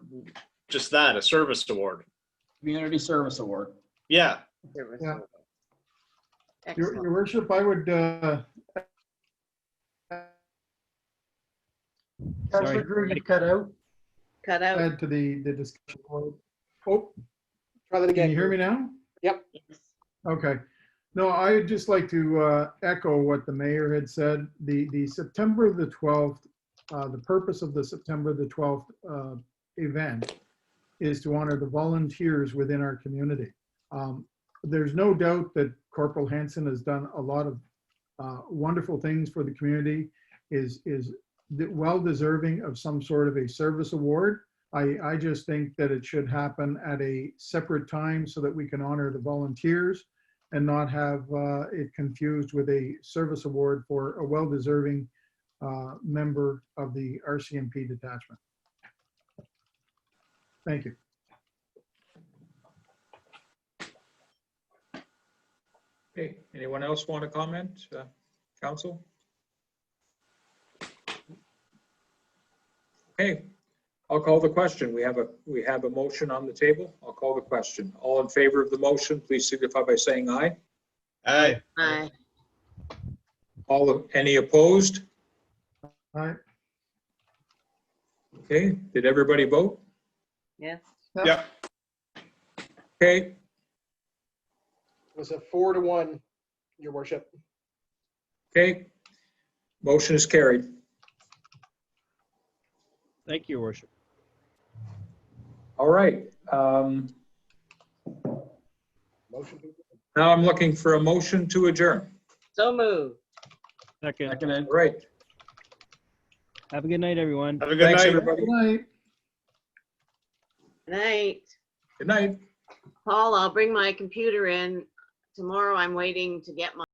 just that, a service award. Community Service Award. Yeah, There was Yeah. no- Your, your Excellent. worship, I would, uh, Councilor Drew, you cut out, Cut out. add to the, the discussion. point. Oh, Try that can again. you hear me now? Yes. Okay. No, I would just like to uh, echo what the mayor had said. The, the September the 12th, uh, the purpose of the September the 12th uh, event is to honor the volunteers within our community. Um, There's no doubt that Corporal Hanson has done a lot of uh, wonderful things for the community, is, is de- well deserving of some sort of a service award. I, I just think that it should happen at a separate time so that we can honor the volunteers and not have uh, it confused with a service award for a well-deserving uh, member of the RCMP detachment. Thank you. Okay, anyone else want to comment, uh, council? Okay, I'll call the question. We have a, we have a motion on the table. I'll call the question. All in favor of the motion, please signify by saying aye. aye, Aye. All, of- any opposed? All right. Okay, did everybody vote? Yes. yep, Okay, It was a four to one, your worship. okay. Motion is carried. Thank you, Your worship. All right. um, Motion to Now I'm looking for a motion to adjourn. So moved. Second. All right, Have a good night, everyone. have a good thanks, night. everybody. Good night. Night. Good night. Paul, I'll bring my computer in. Tomorrow I'm waiting to get my.